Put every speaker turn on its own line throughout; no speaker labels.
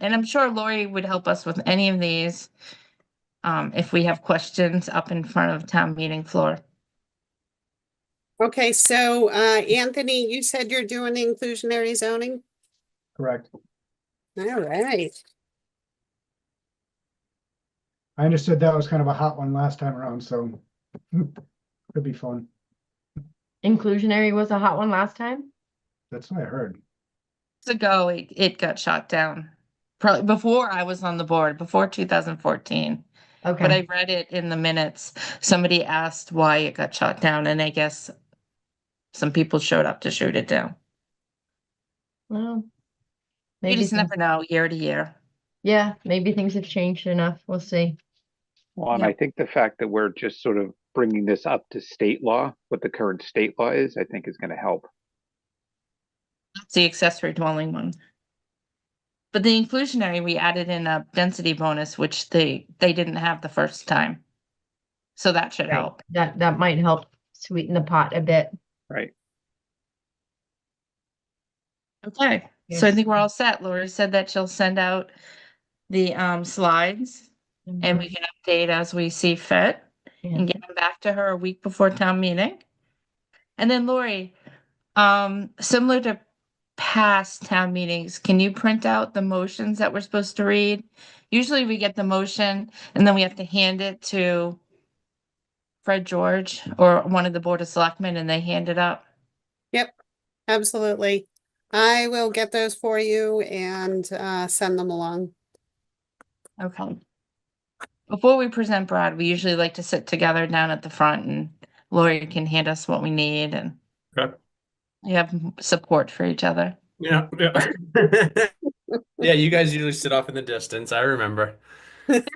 and I'm sure Lori would help us with any of these. Um, if we have questions up in front of town meeting floor.
Okay, so uh, Anthony, you said you're doing the inclusionary zoning?
Correct.
All right.
I understood that was kind of a hot one last time around, so could be fun.
Inclusionary was a hot one last time?
That's what I heard.
Years ago, it, it got shot down. Probably before I was on the board, before two thousand fourteen. But
Okay,
I read it in the minutes. Somebody asked why it got shot down and I guess some people showed up to shoot it down.
well.
You
Maybe,
just never
things-
know, year to year.
yeah, maybe things have changed enough. We'll see.
Well, and
Yeah.
I think the fact that we're just sort of bringing this up to state law, what the current state law is, I think is going to help.
It's the accessory dwelling one. But the inclusionary, we added in a density bonus, which they, they didn't have the first time. So that should
Right.
help.
That, that might help sweeten the pot a bit.
Okay, so I
Yes.
think we're all set. Lori said that she'll send out the um slides and we can update as we see fit
Yeah.
and get them back to her a week before town meeting. And then Lori, um, similar to past town meetings, can you print out the motions that we're supposed to read? Usually we get the motion and then we have to hand it to Fred George or one of the Board of Selectmen and they hand it up.
Absolutely. I will get those for you and uh, send them along.
Okay. Before we present Brad, we usually like to sit together down at the front and Lori can hand us what we need and
Okay.
we have m- support for each other.
Yeah, yeah. yeah, you guys usually sit off in the distance. I remember.
I'm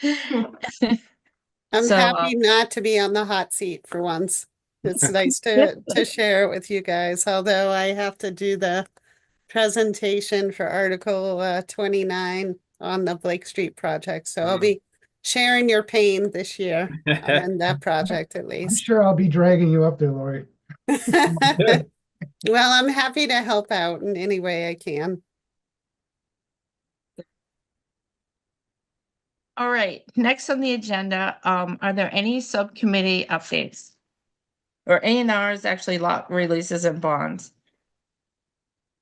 So, uh,
happy not to be on the hot seat for once. It's nice to, to share it with you guys, although I have to do the presentation for Article uh, 29 on the Blake Street project, so I'll
Mm.
be sharing your pain this year on that project at
I'm
least.
sure I'll be dragging you up there, Lori.
Well, I'm happy to help out in any way I can.
All right, next on the agenda, um, are there any subcommittee updates? Or A and R's, actually lot releases and bonds.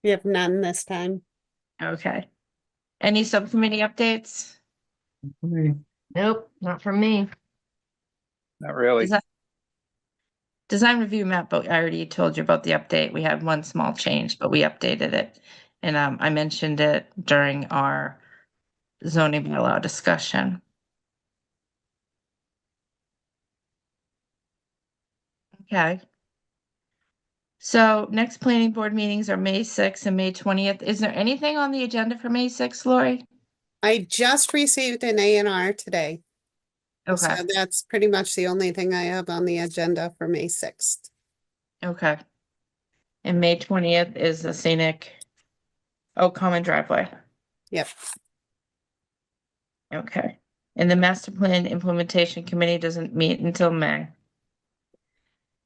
We have none this time.
Okay. Any subcommittee updates?
Nope, not from me.
Not really.
Is that- Design review map, but I already told you about the update. We had one small change, but we updated it. And um, I mentioned it during our zoning bylaw discussion. Okay. So next planning board meetings are May sixth and May twentieth. Is there anything on the agenda for May sixth, Lori?
I just received an A and R today. So
Okay,
that's pretty much the only thing I have on the agenda for May sixth.
okay. And May twentieth is the scenic, oh, common driveway.
Yep.
Okay, and the master plan implementation committee doesn't meet until May.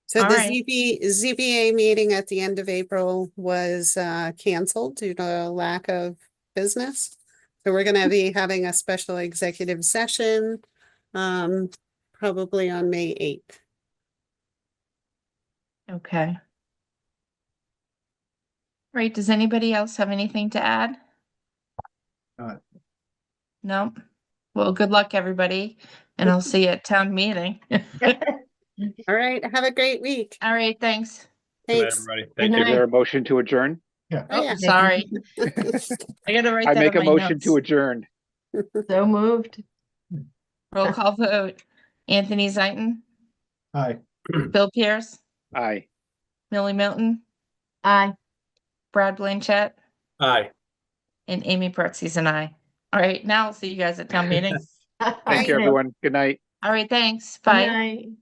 So
All
the
right.
ZB, ZBA meeting at the end of April was uh canceled due to lack of business. So we're gonna be having a special executive session um probably on May eighth.
Okay. Right, does anybody else have anything to add?
Not.
No? Well, good luck, everybody, and I'll see you at town meeting.
All right, have a great week.
All right, thanks.
Good night,
Thanks.
everybody. Thank
Is
you.
night.
there a motion to adjourn?
Oh,
Oh,
yeah.
sorry. I gotta write
I
that
make a
on my
motion
notes.
to adjourn.
So moved.
Roll call vote. Anthony Zaitin,
Hi.
Bill Pierce,
Aye.
Millie Milton,
Aye.
Brad Blanchett,
Hi.
and Amy Pertzes and I. All right, now I'll see you guys at town meeting.
Thank you, everyone. Good night.
All right, thanks.
Good
Bye.
night.